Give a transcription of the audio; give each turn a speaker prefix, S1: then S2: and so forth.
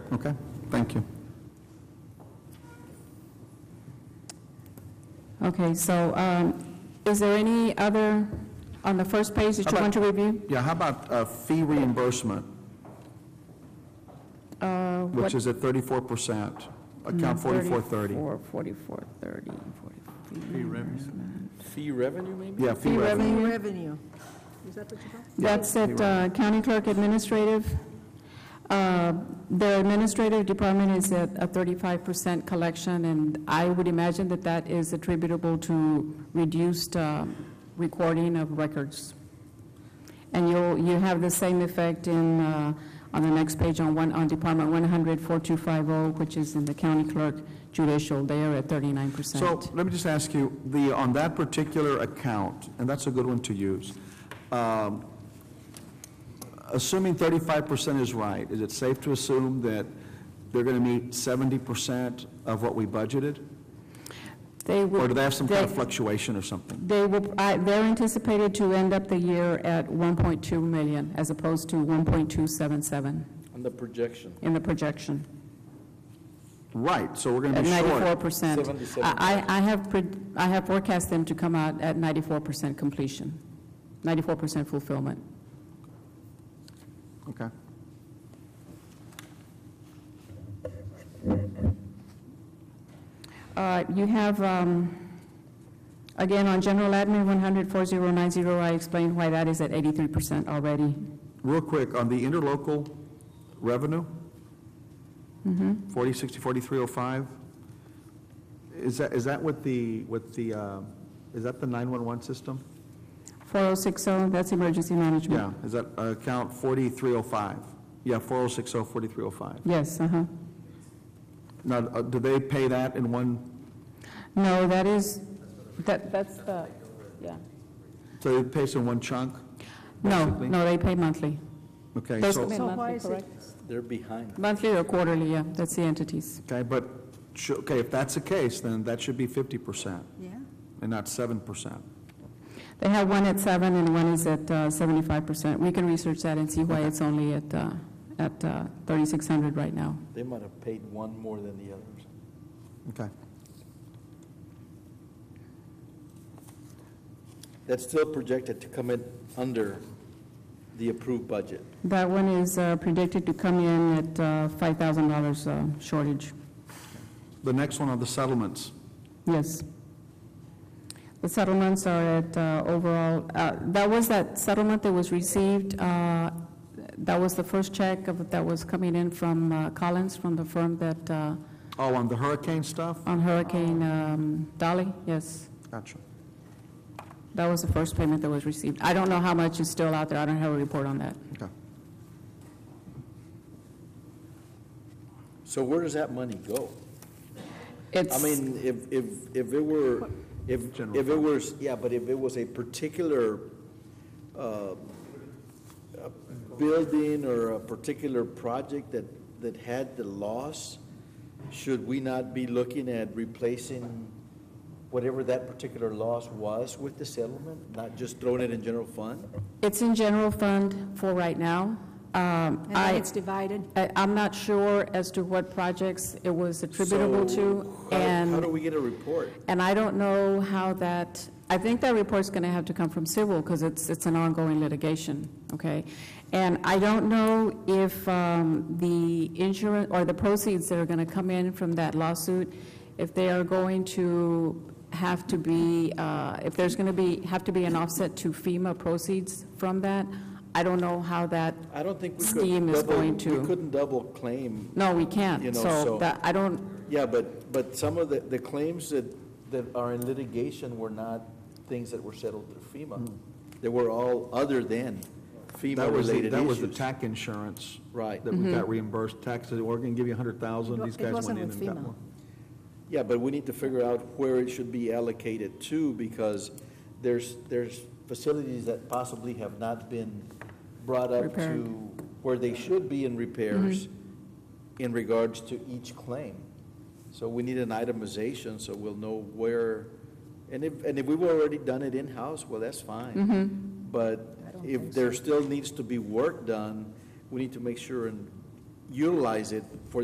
S1: Okay, thank you.
S2: Okay, so um, is there any other, on the first page that you want to review?
S1: Yeah, how about uh, fee reimbursement,
S2: Uh,
S1: which
S2: what- Mm,
S1: is at 34%, account 4430?
S2: 44, 44, 30, 40.
S3: Fee revenue, maybe?
S1: Yeah, fee
S2: Fee
S1: revenue.
S2: revenue,
S4: Revenue. Is that what you call?
S2: that's at uh, County Clerk Administrative. Uh, The administrative department is at a 35% collection, and I would imagine that that is attributable to reduced um, recording of records. And you'll, you have the same effect in, uh, on the next page on one, on Department 100-4250, oh, which is in the County Clerk Judicial, they are at 39%.
S1: So let me just ask you, the, on that particular account, and that's a good one to use, um, assuming 35% is right, is it safe to assume that they're going to meet 70% of what we budgeted?
S2: They will-
S1: Or do they have some kind of
S2: they-
S1: fluctuation or something?
S2: They will, I- they're anticipated to end up the year at 1.2 million as opposed to 1.277
S3: On the projection.
S2: in the projection,
S1: Right, so we're going to
S2: at
S1: be short.
S2: 94%.
S3: 77.
S2: I, I I have, pre- I have forecast them to come out at 94% completion, 94% fulfillment.
S1: Okay.
S2: Uh, You have, um, again, on general admin, 100-4090, I explained why that is at 83% already.
S1: Real quick, on the interlocal revenue? Mm-hmm. 40, 60, 4305? Is that, is that with the, with the, uh, is that the 911 system?
S2: 4060, that's emergency management.
S1: Yeah, is that uh, account 4305? Yeah, 4060, 4305.
S2: Yes, uh-huh.
S1: Now, uh, do they pay that in one,
S2: No, that is, that, that's the, yeah.
S1: so it pays in one chunk?
S2: No,
S1: Basically.
S2: no, they pay monthly.
S1: Okay,
S2: Those-
S1: so,
S2: Monthly,
S4: So why is it-
S2: correct?
S3: They're behind.
S2: Monthly or quarterly, yeah, that's the entities.
S1: okay, but, sh- okay, if that's the case, then that should be 50%
S4: Yeah.
S1: and not 7%.
S2: They have one at seven and one is at uh, seventy-five percent. We can research that and see why it's only at, uh, at thirty-six hundred right now.
S3: They might have paid one more than the others.
S1: Okay.
S3: That's still projected to come in under the approved budget.
S2: That one is uh, predicted to come in at uh, five thousand dollars uh, shortage.
S1: The next one are the settlements.
S2: Yes. The settlements are at uh, overall, uh, that was that settlement that was received, uh, that was the first check of- that was coming in from uh, Collins, from the firm that, uh,
S1: Oh, on the hurricane stuff?
S2: on Hurricane um, Dolly, yes.
S1: Gotcha.
S2: That was the first payment that was received. I don't know how much is still out there, I don't have a report on that.
S1: Okay.
S3: So where does that money go? I
S2: It's,
S3: mean, if, if, if it were, if,
S1: General
S3: if it was, yeah, but if it was a particular uh, a building or a particular project that, that had the loss, should we not be looking at replacing whatever that particular loss was with the settlement, not just throwing it in general fund?
S2: it's in general fund for right now. Um,
S4: And
S2: I-
S4: then it's divided.
S2: I, I'm not sure as to what projects it was attributable to,
S3: So how- How do
S2: and,
S3: we get a report?
S2: and I don't know how that, I think that report's going to have to come from civil, because it's, it's an ongoing litigation, okay? And I don't know if um, the insurance, or the proceeds that are going to come in from that lawsuit, if they are going to have to be, uh, if there's going to be, have to be an offset to FEMA proceeds from that. I don't know how that,
S3: I don't think we could.
S2: Steam is
S3: double-
S2: going to-
S3: We couldn't double claim
S2: no, we
S3: You
S2: can't,
S3: know,
S2: so
S3: so-
S2: that, I don't,
S3: Yeah, but, but some of the, the claims that, that are in litigation were not things that were settled through FEMA. They were all other than
S1: Mm. That was, the-
S3: FEMA-related
S1: that was the
S3: issues.
S1: tax insurance.
S3: Right.
S1: That we got reimbursed taxes, we're gonna give you a hundred thousand,
S4: Mm-hmm.
S1: these
S4: It wa- it
S1: guys went
S4: wasn't
S1: in
S4: with
S1: and got
S4: FEMA.
S1: more.
S3: Yeah, but we need to figure out where it should be allocated to, because there's, there's facilities that possibly have not been brought up
S2: Repaired.
S3: to where they should be in repairs in regards to each claim. So we need an itemization, so we'll know where, and if, and if we've already done it in-house, well, that's fine. But if there still needs to be work done, we need to make sure and utilize it for